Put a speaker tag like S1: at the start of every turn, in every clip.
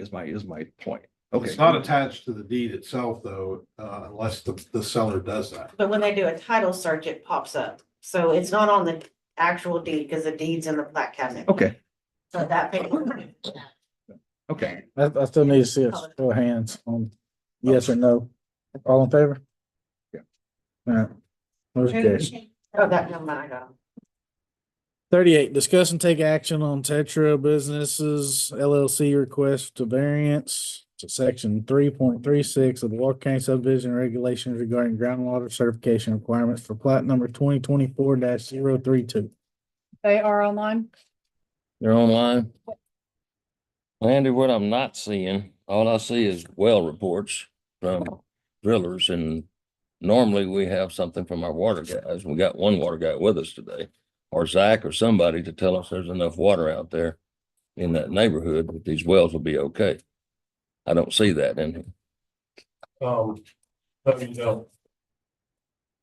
S1: is my, is my point. Okay.
S2: It's not attached to the deed itself, though, uh, unless the, the seller does that.
S3: But when they do a title search, it pops up. So it's not on the actual deed because the deed's in the plat cabinet.
S1: Okay,
S3: So that paper,
S1: okay.
S4: I, I still need to see a show of hands on yes or no. All in favor?
S1: Yeah.
S4: All right. Motion carries.
S3: oh, that number I got.
S4: Thirty-eight, discuss and take action on Tetra Businesses LLC request to variance to section three point three six of the Walker County subdivision regulations regarding groundwater certification requirements for plat number twenty twenty-four 32 zero three two.
S5: They are online.
S6: They're online. Andy, what I'm not seeing, all I see is well reports from drillers and normally we have something from our water guys. We got one water guy with us today. Or Zach or somebody to tell us there's enough water out there in that neighborhood that these wells will be okay. I don't see that in here.
S7: Um, but you know.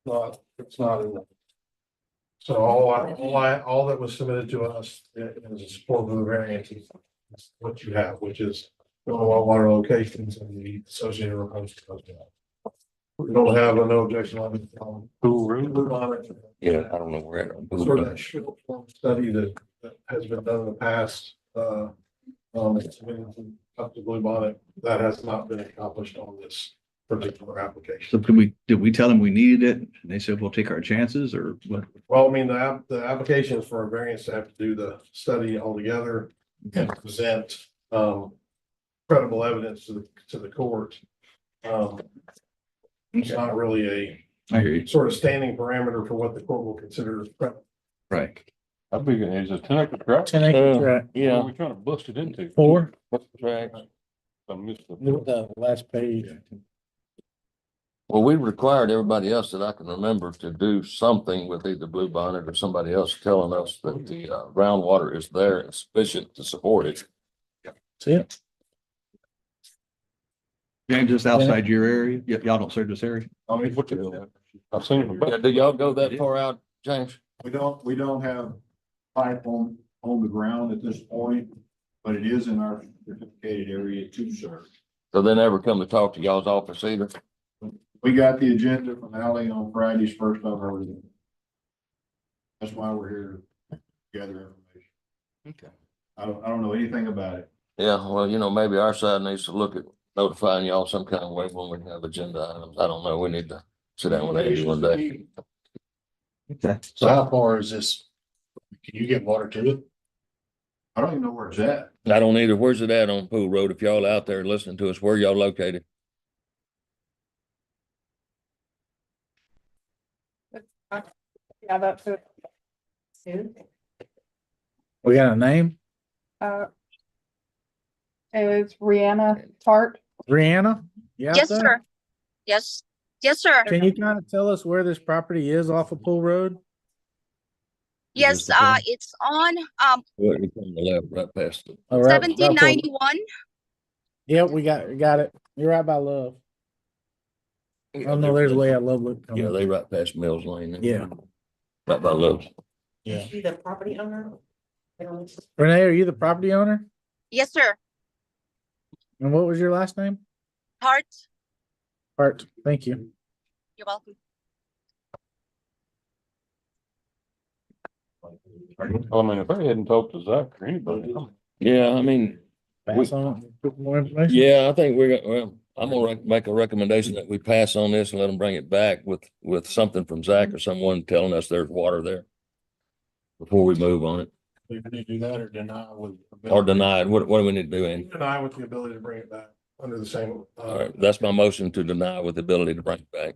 S7: Not, it's not in there. So all I, all I, all that was submitted to us uh, is a support of the variances. That's What you have, which is all water locations and the associated proposed. We don't have a no objection on it. um, Who ruled on it?
S6: Yeah, I don't know where. it-
S7: Sort of that short form study that, that has been done in the past, uh, um, it's been comfortably on it. That has not been accomplished on this particular application.
S1: So can we, did we tell them we needed it? And they said, we'll take our chances or what?
S7: Well, I mean, the app, the application is for a variance to have to do the study altogether and present um credible evidence to the, to the court. Um, it's not really
S1: I hear you.
S7: a sort of standing parameter for what the court will consider as credible.
S1: Right.
S8: How big it is, a ten acre tract?
S4: Ten acres, right?
S8: What are
S6: Uh, Yeah.
S8: we trying to bust it into?
S4: Four,
S6: Right.
S8: I missed the.
S4: the last page.
S6: Well, we required everybody else that I can remember to do something with either Blue Bonnet or somebody else telling us that the uh, groundwater is there and sufficient to support it.
S4: See it?
S1: James, just outside your area? Y- Y'all don't serve this area?
S8: I mean, what the, I've seen it.
S6: Yeah, Do y'all go that far out, James?
S9: We don't, we don't have pipe on, on the ground at this point, but it is in our certificated area to serve.
S6: So they never come to talk to y'all's office either?
S9: We got the agenda from Ally on Friday's first I've heard of it. That's why we're here to gather information.
S6: Okay.
S9: I don't, I don't know anything about it.
S6: Yeah, well, you know, maybe our side needs to look at notifying y'all some kind of way when we have agenda items. I don't know. We need to sit down with Andy one day.
S1: So
S9: how far is this? Can you get water to it? I don't even know where it's at.
S6: I don't either. Where's it at on Pool Road? If y'all out there listening to us, where y'all located?
S5: Yeah, that's it.
S3: Sue?
S4: We got a name?
S5: Uh, It was Rihanna Tart.
S4: Brianna? You out
S10: Yes,
S4: there?
S10: sir. Yes, yes, sir.
S4: Can you kind of tell us where this property is off of Pool Road?
S10: Yes,
S6: Mr. Chairman?
S10: uh, it's on, um,
S6: Well, it's on the left, right past it.
S4: All right, about Pool-
S10: seventeen ninety-one.
S4: Yep, we got, we got it. You're right by Love. Oh, no, there's way out Love Loop.
S6: Yeah, they right past Mills Lane.
S4: Yeah.
S6: Right by Lowe's.
S4: Yeah.
S3: You the property owner? They don't-
S4: Renee, are you the property owner?
S10: Yes, sir.
S4: And what was your last name?
S10: Heart,
S4: Hart, thank you.
S10: you're welcome.
S8: I mean, if I hadn't talked to Zach or anybody, I'm-
S6: Yeah, I mean,
S4: Pass on. More information?
S6: yeah, I think we're, gonna- well, I'm gonna rec- make a recommendation that we pass on this and let them bring it back with, with something from Zach or someone telling us there's water there. Before we move on it,
S7: We need to do that or deny with.
S6: or deny it. What, what do we need to do, Andy?
S7: Deny with the ability to bring it back under the same. uh,
S6: All right, that's my motion to deny with the ability to bring it back.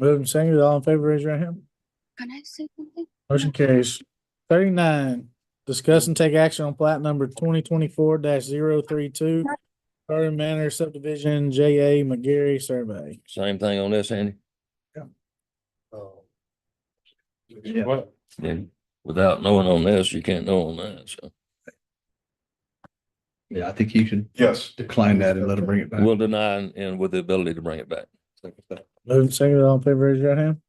S4: Moving, second, all in favor, raise your hand.
S10: Can I say something?
S4: Motion carries. Thirty-nine, discuss and take action on plat number twenty twenty-four 32 Garden Manor subdivision, J A McGary survey.
S6: Same thing on this, Andy?
S7: uh,
S1: Yeah.
S8: what,
S6: Yeah. Without knowing on this, you can't know on that, so
S1: Yeah, I think you should
S7: Yes.
S1: decline that and let them bring it back.
S6: we'll deny and- and with the ability to bring it back.
S4: Moving, second, all in favor, raise your hand.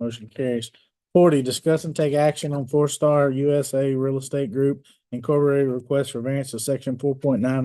S4: Motion carries. Forty, discuss and take action on Four Star USA Real Estate Group Incorporated request for variance to section four point nine of